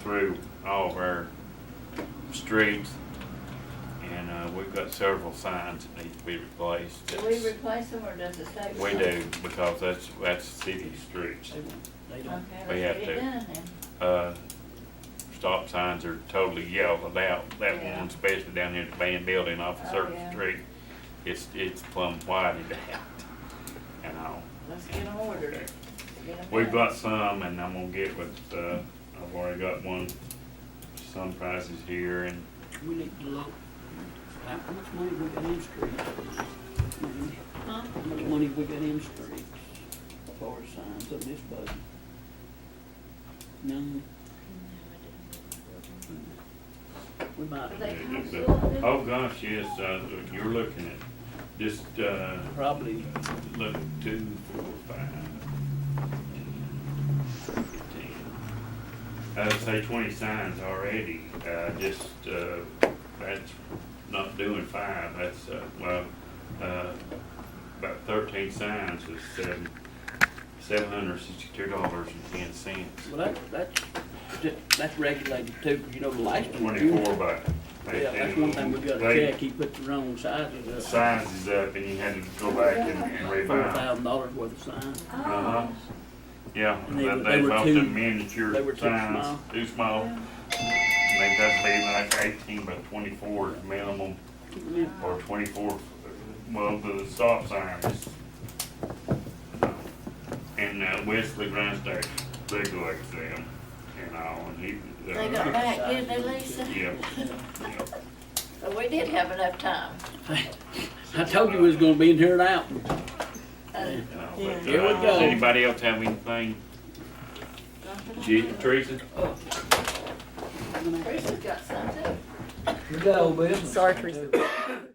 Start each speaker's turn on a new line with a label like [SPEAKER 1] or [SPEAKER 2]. [SPEAKER 1] through all of our streets. And, uh, we've got several signs that need to be replaced.
[SPEAKER 2] Do we replace them or does the state?
[SPEAKER 1] We
[SPEAKER 2] replace
[SPEAKER 1] do,
[SPEAKER 2] them?
[SPEAKER 1] because that's, that's city streets.
[SPEAKER 3] They won't,
[SPEAKER 2] Okay,
[SPEAKER 3] they don't,
[SPEAKER 1] We
[SPEAKER 2] let's
[SPEAKER 1] have
[SPEAKER 2] get it
[SPEAKER 1] to.
[SPEAKER 2] done then.
[SPEAKER 1] Uh, stop signs are totally yelled out, that
[SPEAKER 2] Yeah.
[SPEAKER 1] one especially down here at the band building off of
[SPEAKER 2] Oh,
[SPEAKER 1] Circle
[SPEAKER 2] yeah.
[SPEAKER 1] Street. It's, it's plumb whited out and all.
[SPEAKER 2] Let's get them ordered. Let's get 'em
[SPEAKER 1] We've
[SPEAKER 2] done.
[SPEAKER 1] got some, and I'm gonna get with, uh, I've already got one, some prices here, and
[SPEAKER 3] we need to look, how how much money we got in streets?
[SPEAKER 2] Huh?
[SPEAKER 3] How much money we got in streets for signs of this budget? None, we might,
[SPEAKER 2] They come
[SPEAKER 1] but-
[SPEAKER 2] soon, do they?
[SPEAKER 1] oh gosh, yes, uh, you're looking at just, uh,
[SPEAKER 3] probably,
[SPEAKER 1] look, two, four, five, fifteen. I'd say twenty signs already, uh, just, uh, that's not doing five, that's, uh, well, uh, about thirteen signs is seven, seven hundred sixty-two dollars and ten cents.
[SPEAKER 3] well, that, that's, ju- that's regulated too, 'cause you know, the last one. we
[SPEAKER 1] Twenty-four
[SPEAKER 3] did-
[SPEAKER 1] by.
[SPEAKER 3] Yeah, that's one thing we gotta
[SPEAKER 1] they-
[SPEAKER 3] check, he put the wrong
[SPEAKER 1] the
[SPEAKER 3] sizes up,
[SPEAKER 1] Signs is uh, up and you had to go back and and
[SPEAKER 3] four
[SPEAKER 1] revise.
[SPEAKER 3] thousand dollars worth of signs.
[SPEAKER 1] Uh-huh. Yeah,
[SPEAKER 3] And they
[SPEAKER 1] that
[SPEAKER 3] were-
[SPEAKER 1] they
[SPEAKER 3] they were
[SPEAKER 1] both
[SPEAKER 3] too-
[SPEAKER 1] them miniature
[SPEAKER 3] they were too
[SPEAKER 1] signs,
[SPEAKER 3] small.
[SPEAKER 1] too small. And they got to be like eighteen by twenty-four is minimum, or twenty-four, well, the stop signs. And uh, Wesley Grindstack, they go like them, and all, and he. uh,
[SPEAKER 2] They got back, didn't they, Lisa?
[SPEAKER 1] Yeah, yeah.
[SPEAKER 2] So we did have enough time.
[SPEAKER 3] I told you it was gonna be in here and out.
[SPEAKER 2] Uh,
[SPEAKER 1] and all, but,
[SPEAKER 3] Here we
[SPEAKER 1] uh,
[SPEAKER 3] go.
[SPEAKER 1] Does anybody else have anything? Gee, Teresa?
[SPEAKER 2] Bruce has got some too.
[SPEAKER 3] Good old business.
[SPEAKER 4] Sorry, Teresa.